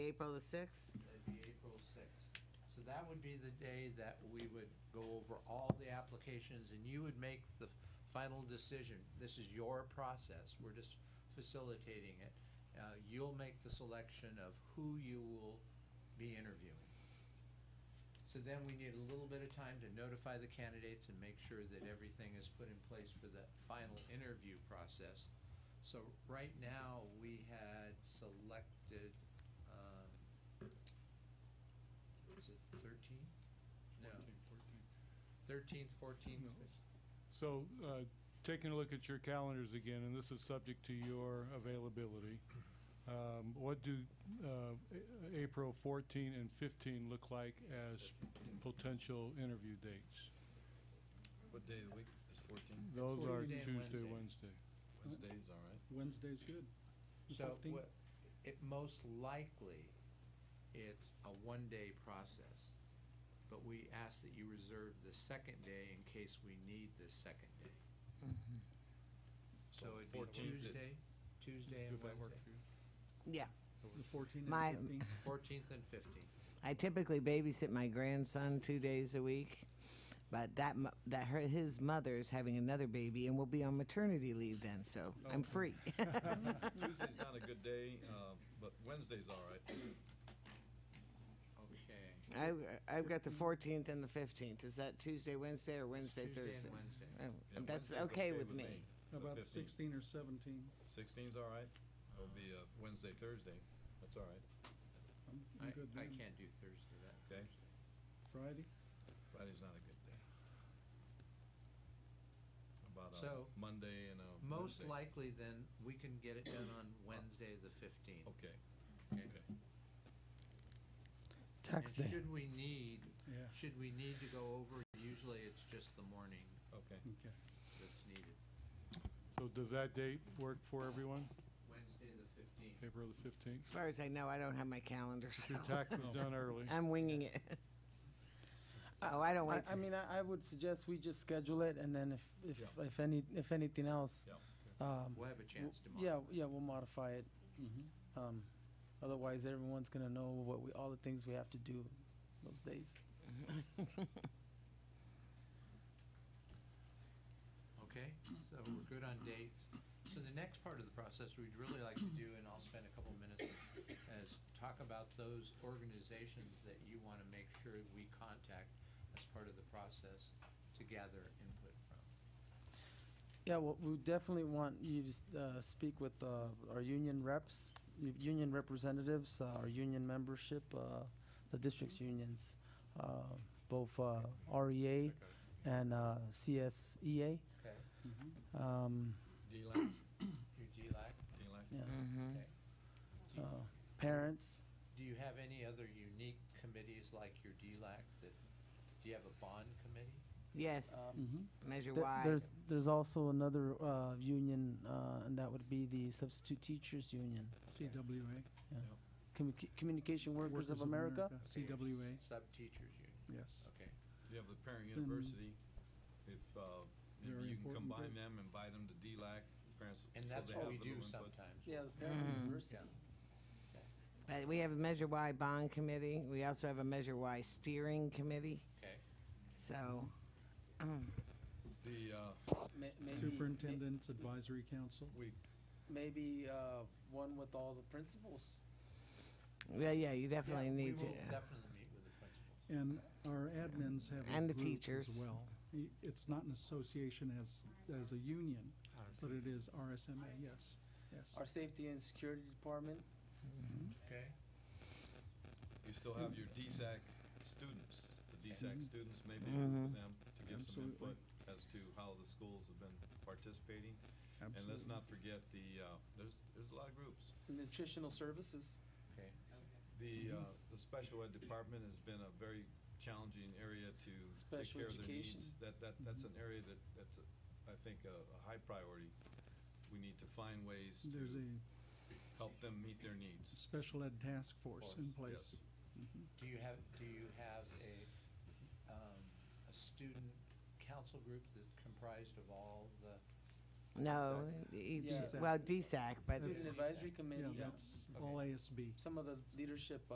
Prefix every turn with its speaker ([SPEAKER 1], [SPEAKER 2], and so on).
[SPEAKER 1] April the 6th?
[SPEAKER 2] That'd be April 6th. So that would be the day that we would go over all the applications, and you would make the final decision. This is your process, we're just facilitating it. Uh, You'll make the selection of who you will be interviewing. So then we need a little bit of time to notify the candidates and make sure that everything is put in place for the final interview process. So right now, we had selected, um, was it thirteen? No,
[SPEAKER 3] 14,
[SPEAKER 2] thirteenth,
[SPEAKER 3] 14.
[SPEAKER 2] fourteenth,
[SPEAKER 3] No. So, uh, taking a look at your calendars again, and this is subject to your availability, um, what do uh, A- April 14 and 15 look like as potential interview dates?
[SPEAKER 4] What day of the week is 14?
[SPEAKER 3] Those are
[SPEAKER 2] Tuesday and
[SPEAKER 3] Tuesday,
[SPEAKER 2] Wednesday.
[SPEAKER 3] Wednesday.
[SPEAKER 4] Wednesday's all right.
[SPEAKER 5] Wednesday's good. The
[SPEAKER 2] So
[SPEAKER 5] 15th?
[SPEAKER 2] what- it, most likely, it's a one-day process. But we ask that you reserve the second day in case we need the second day.
[SPEAKER 3] Mm-hmm.
[SPEAKER 2] So it'd be
[SPEAKER 4] 14th.
[SPEAKER 2] Tuesday, Tuesday and
[SPEAKER 3] Does that work
[SPEAKER 2] Wednesday.
[SPEAKER 3] for you?
[SPEAKER 1] Yeah.
[SPEAKER 5] The 14th
[SPEAKER 1] My-
[SPEAKER 5] and 15th.
[SPEAKER 2] Fourteenth and fifteenth.
[SPEAKER 1] I typically babysit my grandson two days a week, but that mo- that her, his mother's having another baby and will be on maternity leave then, so I'm free.
[SPEAKER 4] Tuesday's not a good day, uh, but Wednesday's all right.
[SPEAKER 2] Okay.
[SPEAKER 1] I, I've got the 14th and the 15th. Is that Tuesday, Wednesday, or Wednesday,
[SPEAKER 2] Tuesday and
[SPEAKER 1] Thursday?
[SPEAKER 2] Wednesday.
[SPEAKER 1] Oh,
[SPEAKER 4] Yeah,
[SPEAKER 1] that's
[SPEAKER 4] Wednesday's
[SPEAKER 1] okay with me.
[SPEAKER 5] How about
[SPEAKER 4] The
[SPEAKER 5] the 16
[SPEAKER 4] 15th.
[SPEAKER 5] or 17?
[SPEAKER 4] 16's all right. It'll be uh, Wednesday, Thursday. That's all right.
[SPEAKER 5] I'm
[SPEAKER 2] I,
[SPEAKER 5] I'm good
[SPEAKER 2] I
[SPEAKER 5] then.
[SPEAKER 2] can't do Thursday that.
[SPEAKER 4] Okay.
[SPEAKER 5] Friday?
[SPEAKER 4] Friday's not a good day. About a
[SPEAKER 2] So,
[SPEAKER 4] Monday and a
[SPEAKER 2] Most
[SPEAKER 4] Wednesday.
[SPEAKER 2] likely then, we can get it done on Wednesday, the fifteenth.
[SPEAKER 4] Okay,
[SPEAKER 2] Okay.
[SPEAKER 4] okay.
[SPEAKER 2] And should we need,
[SPEAKER 5] Yeah.
[SPEAKER 2] should we need to go over, usually it's just the morning
[SPEAKER 4] Okay.
[SPEAKER 5] Okay.
[SPEAKER 2] that's needed.
[SPEAKER 3] So does that date work for everyone,
[SPEAKER 2] Wednesday, the fifteenth.
[SPEAKER 3] April the 15th?
[SPEAKER 1] As far as I know, I don't have my calendar, so
[SPEAKER 3] Your tax is done early.
[SPEAKER 1] I'm winging it. Oh, I don't
[SPEAKER 6] I,
[SPEAKER 1] want
[SPEAKER 6] I
[SPEAKER 1] to.
[SPEAKER 6] mean, I, I would suggest we just schedule it, and then if, if,
[SPEAKER 4] Yeah.
[SPEAKER 6] if any, if anything else,
[SPEAKER 4] Yeah.
[SPEAKER 6] um,
[SPEAKER 2] We'll have a chance tomorrow.
[SPEAKER 6] yeah, yeah, we'll modify it.
[SPEAKER 5] Mhm.
[SPEAKER 6] Um, otherwise, everyone's gonna know what we, all the things we have to do those days.
[SPEAKER 2] Okay, so we're good on dates. So the next part of the process we'd really like to do, and I'll spend a couple minutes, is talk about those organizations that you want to make sure we contact as part of the process to gather input from.
[SPEAKER 6] Yeah, well, we definitely want you to, s- uh, speak with, uh, our union reps, u- union representatives, uh, our union membership, uh, the district's unions, uh, both, uh, REA and, uh, CSEA.
[SPEAKER 2] Okay.
[SPEAKER 6] Um,
[SPEAKER 4] D-Lang,
[SPEAKER 2] Your GLAC,
[SPEAKER 4] D-Lang.
[SPEAKER 6] yeah,
[SPEAKER 1] Mm-hmm.
[SPEAKER 2] okay. Do you-
[SPEAKER 6] uh, parents,
[SPEAKER 2] Do you have any other unique committees like your DLAC that, do you have a bond committee?
[SPEAKER 1] Yes,
[SPEAKER 6] mhm.
[SPEAKER 1] measure
[SPEAKER 6] Th-
[SPEAKER 1] Y.
[SPEAKER 6] There's there's also another uh, union, uh, and that would be the Substitute Teachers Union,
[SPEAKER 5] CWA.
[SPEAKER 6] Commu- Communication Workers, of America.
[SPEAKER 5] CWA,
[SPEAKER 2] Sub-teachers union,
[SPEAKER 5] yes.
[SPEAKER 2] okay.
[SPEAKER 4] You have the parent university. If, uh,
[SPEAKER 5] Very
[SPEAKER 4] maybe you can
[SPEAKER 5] important
[SPEAKER 4] combine
[SPEAKER 5] group.
[SPEAKER 4] them, invite them to D-Lang. parents,
[SPEAKER 2] And
[SPEAKER 4] so
[SPEAKER 2] that's
[SPEAKER 4] they
[SPEAKER 2] what
[SPEAKER 4] have
[SPEAKER 2] we
[SPEAKER 4] a
[SPEAKER 2] do
[SPEAKER 4] little input.
[SPEAKER 2] sometimes.
[SPEAKER 6] Yeah, the parent university.
[SPEAKER 2] Yeah.
[SPEAKER 1] Uh, We have a Measure Y bond committee. We also have a Measure Y steering committee.
[SPEAKER 2] Okay.
[SPEAKER 1] So,
[SPEAKER 4] The, uh,
[SPEAKER 6] Ma- maybe,
[SPEAKER 5] Superintendent's Advisory Council.
[SPEAKER 4] we
[SPEAKER 6] ma- Maybe uh, one with all the principals.
[SPEAKER 1] yeah, yeah, you definitely
[SPEAKER 2] Yeah,
[SPEAKER 1] need
[SPEAKER 2] We will
[SPEAKER 1] to.
[SPEAKER 2] definitely meet with the principal.
[SPEAKER 5] And our admins have
[SPEAKER 1] And the
[SPEAKER 5] a group
[SPEAKER 1] teachers.
[SPEAKER 5] as well. I- It's not an association as, as a union, but it is RSMA, yes, yes.
[SPEAKER 6] Our Safety and Security Department.
[SPEAKER 2] Okay.
[SPEAKER 4] You still have your DSAC students, the DSAC students, maybe you can
[SPEAKER 6] Mm-hmm.
[SPEAKER 4] put them to give some
[SPEAKER 5] Mm-hmm. Absolutely.
[SPEAKER 4] input as to how the schools have been participating. And let's
[SPEAKER 5] Absolutely.
[SPEAKER 4] not forget the, uh, there's, there's a lot of groups.
[SPEAKER 6] Nutritional services.
[SPEAKER 2] Okay.
[SPEAKER 5] Mm-hmm.
[SPEAKER 4] The, uh, the special ed department has been a very challenging area to take
[SPEAKER 6] Special
[SPEAKER 4] care of their
[SPEAKER 6] education.
[SPEAKER 4] needs. That, that, that's
[SPEAKER 5] Mm-hmm.
[SPEAKER 4] an area that, that's, a- I think, a, a high priority. We need to find ways
[SPEAKER 5] There's
[SPEAKER 4] to
[SPEAKER 5] a
[SPEAKER 4] help them meet their needs.
[SPEAKER 5] special ed task force in place.
[SPEAKER 2] Do you have, do you have a, um, a student council group that's comprised of all the
[SPEAKER 1] No, each,
[SPEAKER 6] Yeah.
[SPEAKER 1] well, DSAC, but
[SPEAKER 5] That's-
[SPEAKER 6] Student Advisory Committee,
[SPEAKER 5] Yeah,
[SPEAKER 6] yeah.
[SPEAKER 5] that's all ASB.
[SPEAKER 6] some of the leadership